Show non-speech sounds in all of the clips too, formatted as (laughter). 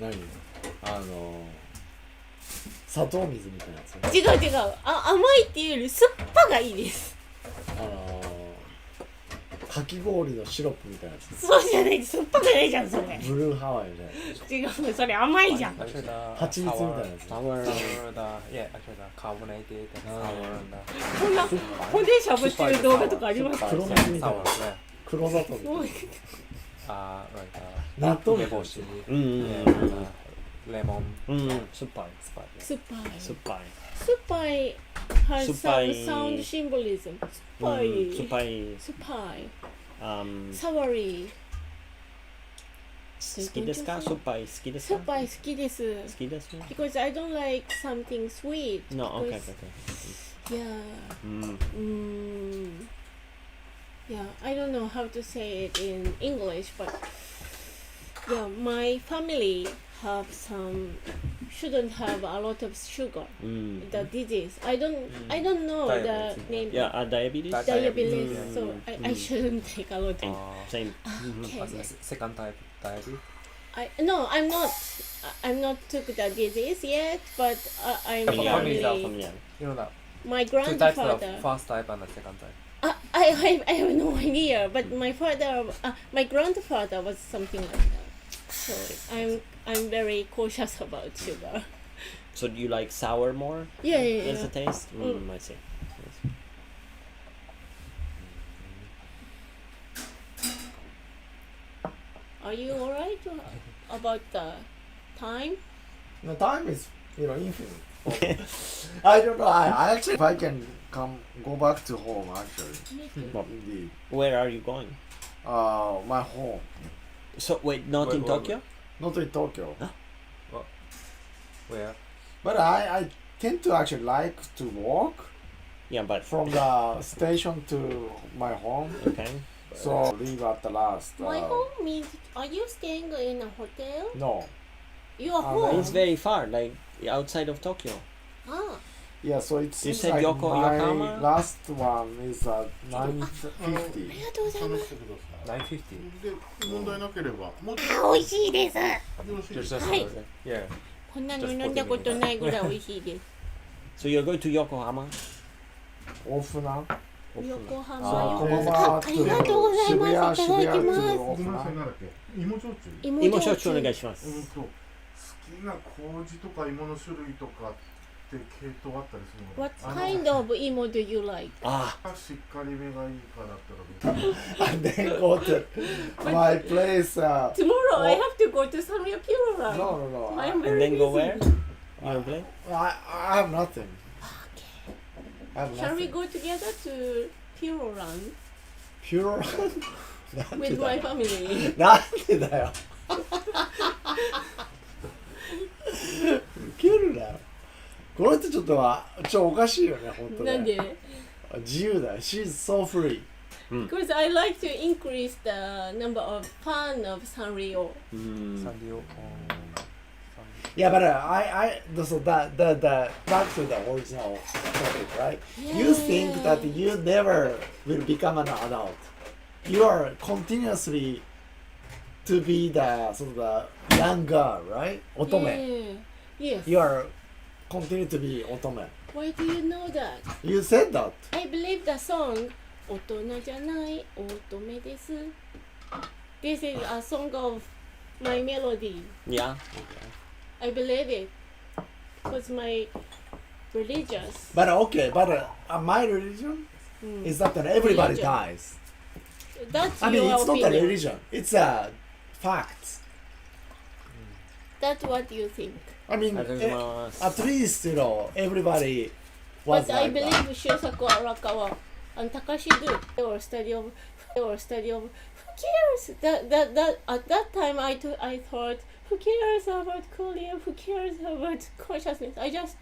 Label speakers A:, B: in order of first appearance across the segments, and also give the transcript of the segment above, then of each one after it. A: 何あの砂糖水みたいなやつ
B: 違う違うあ甘いっていうより酸っぱがいいです
A: あのかき氷のシロップみたいなや
B: そうじゃない酸っぱくないじゃんそれ
A: つブルーハワイみたいなやつ
B: 違うそれ甘いじゃん
C: Actually, the
A: Hachi Mitsu みたい
C: sour-
A: なやつ。
C: sour- the- yeah, actually, the carbonated and sour and the-
B: こんな骨しゃぶってる動画とかありますか
C: Sour,
A: 黒蜜
C: yeah,
A: みたい
C: sour,
A: な
C: yeah.
A: 黒砂糖みたいな
C: Uh, like, uh,
A: 納豆みた
C: 梅
A: い
C: 干
A: な
C: し
D: うん
C: yeah,
D: う
C: and, uh, lemon
D: んうんうん酸っぱい
C: spice.
B: 酸っぱい
D: 酸っぱい
B: 酸っぱいはい
D: 酸っ
B: サ
D: ぱ
B: ウ
D: い
B: サウンドシンボリズム酸っぱ
D: う
B: い
D: ん酸っぱい
B: 酸っぱい
D: あん
B: サワリー
D: 好きですか酸っぱい好きですか
B: 酸っぱい好きです
D: 好きですね
B: because I don't like something sweet
D: No, okay,
B: because-
D: okay.
B: yeah
D: うん。
B: mm, yeah I don't know how to say it in English but yeah my family have some shouldn't have a lot of sugar
D: うん。
B: the disease I don't I don't know the
C: Mm. Diabetes.
B: name
D: いや、あ、ダイアビリ
C: Diabetes.
B: diabetes
C: Mm.
B: so I, I shouldn't take a lot of
C: Uh,
D: セイム。Mm-hmm.
B: okay
C: as a se- second type diabetes.
B: I no I'm not I- I'm not took the disease yet but uh, I'm currently
C: Your family is
D: ファミリア
C: You know that
B: my
C: two types of
B: grandfather
C: first type and the second type.
B: I, Uh, I, (laughs) I have no idea, but my father, uh, my grandfather was something like that. So I'm I'm very cautious (laughs) about sugar.
D: So do you like sour more?
B: Yeah, yeah,
D: As
B: yeah.
D: a taste? う
B: うん
D: ん、I see.
B: Are you alright uh, about the time?
A: No, time is, you know, infinite. (laughs) I don't know. I, I actually, if I can come go back to home, actually, indeed.
D: Where are you going?
A: Uh, my home,
D: So wait, not
C: Wait,
D: in
C: wait,
D: Tokyo?
A: not in Tokyo,
C: Where?
A: but I, I tend to actually like to walk
D: Yeah, but
A: from the station to my home.
D: okay.
A: So leave at the last.
B: My
A: uh,
B: home means are you staying in a hotel?
A: No.
B: Your
A: Ah,
B: home.
D: It's very far, like outside of Tokyo.
B: ah, (laughs)
A: Yeah. So it's.
D: You said
A: like
D: Yoko-
A: my
D: Yokohama?
A: last one is uh, nine fifty.
B: (laughs) ありがとうございま
E: 話
B: す。
E: してください
C: Nine fifty.
E: で問題なければもうちょ
B: あ、美味しいです。
E: っとよろしいです
C: Just
E: か
C: just
B: Hi.
C: yeah.
B: こんなの飲んだことないぐらい美味しいです。
D: So you're going to Yokohama?
A: Ofuna. (laughs)
B: 横浜よ。
A: Komama
B: ありがとうございますいただきま
A: to
B: す
E: ごめんなさ
A: Ofuna.
E: いなんだっけ芋焼酎
D: 今焼酎お願い
B: し
D: します。
E: うんと好きな麹とか芋の種類とかって系統あったりするの
B: What
E: あの
B: kind of emo do you like?
D: Ah,
E: しっかりめがいいかだったら別に
A: And then go to my place. Uh,
B: (laughs) Tomorrow I
A: Oh.
B: have to go to Samyapura.
A: no, uh, no, no. I,
B: I'm
D: and
B: very
D: then go
B: busy.
D: where? Your place?
A: I, I have nothing. I have
B: Shall we
A: nothing.
B: go together to Pure
A: (laughs)
B: Run
A: Pure. (laughs) なんでだ
B: with
A: (laughs)
B: my
A: よ
B: family? (laughs)
A: なんでだよ。ウケるなよ。この人ちょっとは、ちょっとおかしいよね、本当ね。
B: なんで
A: 自由だよ。She's so free.
B: Because I like to increase the number of fan of Sanrio.
D: Mm.
C: Sanrio. um, Sanrio.
A: Yeah, but uh, I, I, so that, that, that, back to the original topic, right? You think that you never will become an adult. You are continuously to be the sort of the young girl, right? Otome.
B: Yeah. Yes.
A: You are continue to be otome.
B: Why do you know that?
A: You said that.
B: I believe the song 大人じゃない乙女です This is a song of my melody.
D: Yeah.
B: I believe it. Because my religious.
A: But okay, but uh, uh, my religion
B: Mm.
A: is that that everybody
B: Religion.
A: dies.
B: That's
A: I mean,
B: your
A: it's
B: opinion.
A: not a religion. It's a fact.
B: That's what you think.
A: I mean,
D: ありがとうござい
A: eh,
D: ます。
A: at least you know everybody was
B: But I
A: like that.
B: believe Shusaku Arakawa and Takashi do they were study of they were study of who cares that that that at that time I to- I thought who cares about Korea who cares about consciousness I just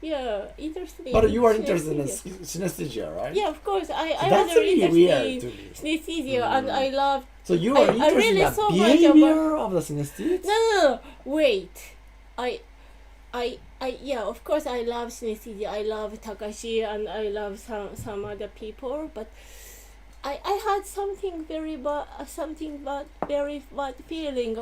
B: yeah interested in
A: But you are interested in
B: synesthesia.
A: syn- synesthesia, right?
B: yeah of course I I was
A: That's really
B: interested
A: weird Hmm. to
B: in
A: me.
B: synesthesia and I love
A: So you
B: I-
A: are
B: I
A: interested
B: really
A: in the
B: saw much about-
A: behavior of the synesthetes?
B: No, no, no. Wait. I, I, I. Yeah, of course, I love Shinji. I love Takashi, and I love some some other people. But I, I had something very bad, something bad, very bad feeling